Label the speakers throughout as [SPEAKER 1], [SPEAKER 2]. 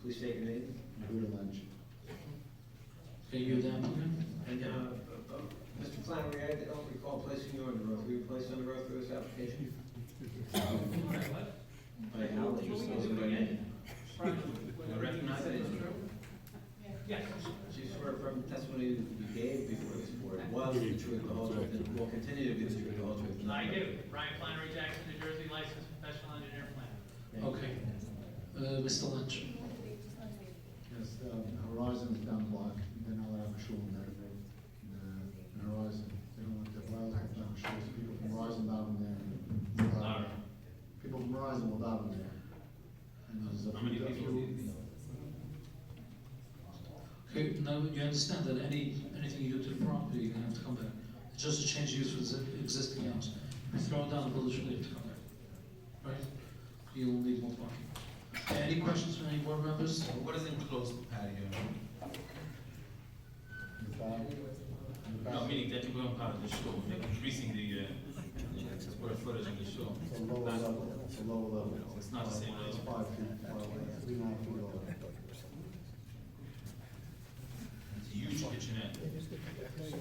[SPEAKER 1] Please state your name.
[SPEAKER 2] Buddha lunch.
[SPEAKER 3] Can you give that motion?
[SPEAKER 1] And, uh, uh, uh, Mr. Flannery, I don't recall placing you under oath. Were you placed under oath for this application? By Howard, you still by name. I recognize it.
[SPEAKER 4] Yes.
[SPEAKER 1] Do you swear from testimony you gave before this board was the truth, the whole truth, and will continue to be the truth, the whole truth? and
[SPEAKER 4] I
[SPEAKER 1] nothing but the
[SPEAKER 4] do. Ryan Flannery Jackson, New Jersey, licensed professional engineer planner.
[SPEAKER 1] truth?
[SPEAKER 3] Okay. Uh, Mr. Lynch?
[SPEAKER 2] Yes, um, Horizon is down the block, they're not allowed to show in there. The- the Horizon, they don't want the wildlife down shows, people from Horizon down there. will dive in. People from Horizon will dive in there. And there's a
[SPEAKER 4] How many
[SPEAKER 2] few-
[SPEAKER 4] people do you think?
[SPEAKER 3] Okay, now you understand that any, anything you do to the property, you're gonna have to come back. It's just a change use for the existing house. You throw it down, village will have to come back. Right? You'll need more parking. Any questions from any board members?
[SPEAKER 5] What is enclosed patio?
[SPEAKER 2] in the back- in the
[SPEAKER 5] No,
[SPEAKER 2] back.
[SPEAKER 5] meaning that you go on part of the show, like increasing the, uh, square footage of the show.
[SPEAKER 2] It's a lower level, it's a lower level.
[SPEAKER 5] uh, It's not the same
[SPEAKER 2] It's
[SPEAKER 5] level.
[SPEAKER 2] five feet, five, three and a half feet lower.
[SPEAKER 5] It's a huge kitchenette.
[SPEAKER 4] What's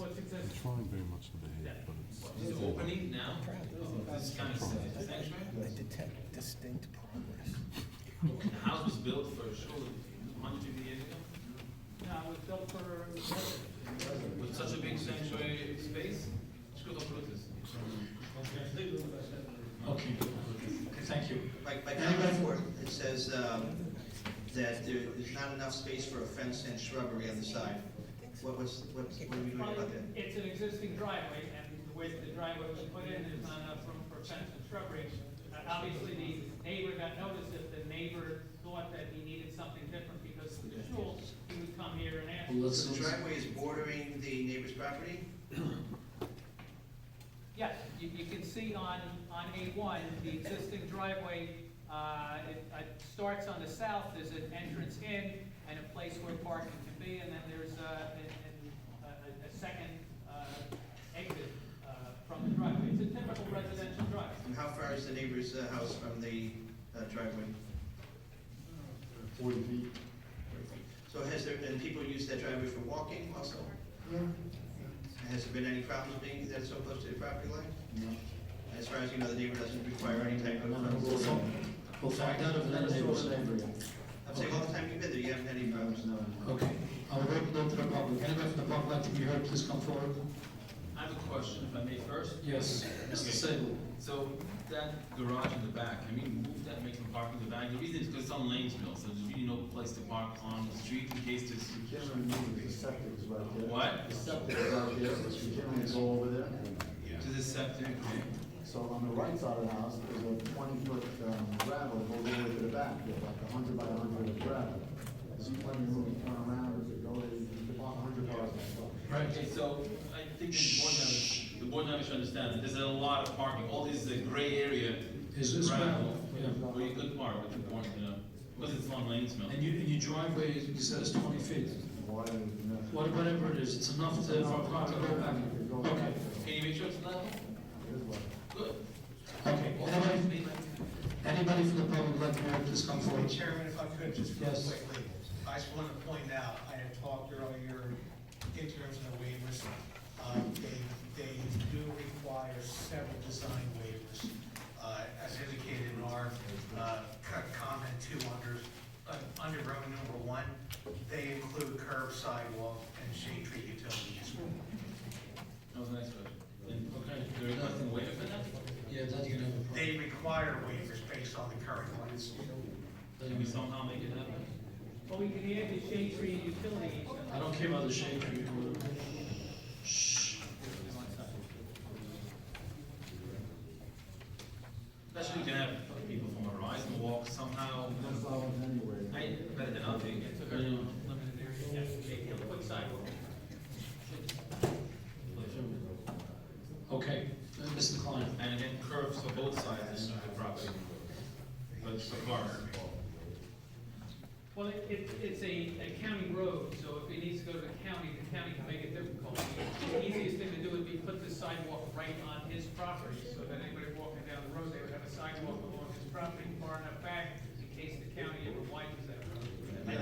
[SPEAKER 6] I'm
[SPEAKER 4] existing?
[SPEAKER 6] trying very much to behave, but it's.
[SPEAKER 5] Is it opening now? Oh, This is kind of sad. Sanctuary?
[SPEAKER 7] detect distinct progress.
[SPEAKER 5] The house was built for a show hundred fifty years ago,
[SPEAKER 4] No, it was built for,
[SPEAKER 5] with such a big sanctuary space. It's good for this.
[SPEAKER 3] Okay, Okay, thank you.
[SPEAKER 8] By, by paragraph four, it says, um, that there is not enough space for a fence and shrubbery on the side. What was, what, what are we doing about that?
[SPEAKER 4] it's an existing driveway, and the way that the driveway was put in, there's not enough room for fence and shrubbery. Uh, Obviously, the neighbor got notice if the neighbor thought that he needed something different because of the shul, he would come here and ask.
[SPEAKER 3] Well, let's,
[SPEAKER 8] So the driveway is bordering the neighbor's property?
[SPEAKER 4] Yes, you, you can see on, on A1, the existing driveway, uh, it, uh starts on the south, there's an entrance in and a place where parking can be, and then there's, uh, an, an- a, a- a second, uh, exit, uh, from the driveway. It's a typical residential driveway.
[SPEAKER 8] And how far is the neighbor's uh, house from the uh, driveway?
[SPEAKER 2] Forty feet.
[SPEAKER 8] So has there been people use that driveway for walking also? And Has there been any problems being that it's so close to the property line?
[SPEAKER 2] No.
[SPEAKER 8] As far as you know, the neighbor doesn't require any type of,
[SPEAKER 2] Another door
[SPEAKER 8] I'm
[SPEAKER 2] there.
[SPEAKER 3] we'll find out if that
[SPEAKER 2] Another
[SPEAKER 3] neighbors.
[SPEAKER 2] door there.
[SPEAKER 8] saying all the time you've been there, you haven't had any problems?
[SPEAKER 2] No, no.
[SPEAKER 3] Okay, I'll open it to the public. Anyone from the public like to be heard, please come forward.
[SPEAKER 5] I have a question, if I may first.
[SPEAKER 3] Yes, Mr.
[SPEAKER 5] Okay.
[SPEAKER 3] Sable.
[SPEAKER 5] So that garage in the back, can we move that, make them park in the back? The reason is because it's on Lanesville, so there's really no place to park on the street in case there's.
[SPEAKER 2] You can't really move it, the septic is right there.
[SPEAKER 5] What?
[SPEAKER 2] The septic is right there, but you can't really go over there.
[SPEAKER 5] To the septic, okay?
[SPEAKER 2] So on the right side of the house, there's a twenty-foot gravel that goes all the way to the back, there's like a hundred by a hundred of gravel. There's plenty of room to turn around, if you go, there, you can park a hundred cars in that car.
[SPEAKER 5] Right, okay, so I think the board members, the board members should understand that there's a lot of parking, all this uh, gray area,
[SPEAKER 3] Is this
[SPEAKER 5] gravel,
[SPEAKER 3] gravel? Yeah.
[SPEAKER 5] where you could park, but you want, you know, because it's on Lanesville.
[SPEAKER 3] And you, and your driveway, is- you said it's twenty feet.
[SPEAKER 2] Water is enough.
[SPEAKER 3] What- Whatever it is, it's enough to, for a car to go back.
[SPEAKER 2] You could go back
[SPEAKER 3] Okay,
[SPEAKER 2] there.
[SPEAKER 5] Can you make sure it's level?
[SPEAKER 2] There's water.
[SPEAKER 5] Good.
[SPEAKER 3] okay. Anybody, anybody from the public like to be heard, please come forward.
[SPEAKER 9] Chairman, if I could, just real
[SPEAKER 3] Yes.
[SPEAKER 9] quickly, I just want to point out, I had talked earlier in terms of the waivers. um, They, they do require several design waivers, uh, as indicated in our uh, co- comment two under, uh, under row number one. They include curb sidewalk and shade tree utilities.
[SPEAKER 5] That was a nice question. And, okay, there is nothing waiting for that?
[SPEAKER 3] Yeah, that you never.
[SPEAKER 9] They require waivers based on the current plans.
[SPEAKER 5] Can we somehow make it happen?
[SPEAKER 4] But we can add the shade tree and utility easement.
[SPEAKER 3] I don't care about the shade tree. or whatever. Shh.
[SPEAKER 5] Especially you can have people from Horizon walk somehow,
[SPEAKER 2] That's all in anyway.
[SPEAKER 5] I, better than nothing.
[SPEAKER 4] It's a very limited area, yes, maybe a quick sidewalk.
[SPEAKER 3] Okay, Uh, Mr. Klein.
[SPEAKER 5] And again, curves for both sides of the property. But for cars.
[SPEAKER 4] Well, it, it- it's a, a county road, so if it needs to go to the county, the county can make it difficult. The easiest thing to do would be put the sidewalk right on his property, so that anybody walking down the road, they would have a sidewalk along his property far enough back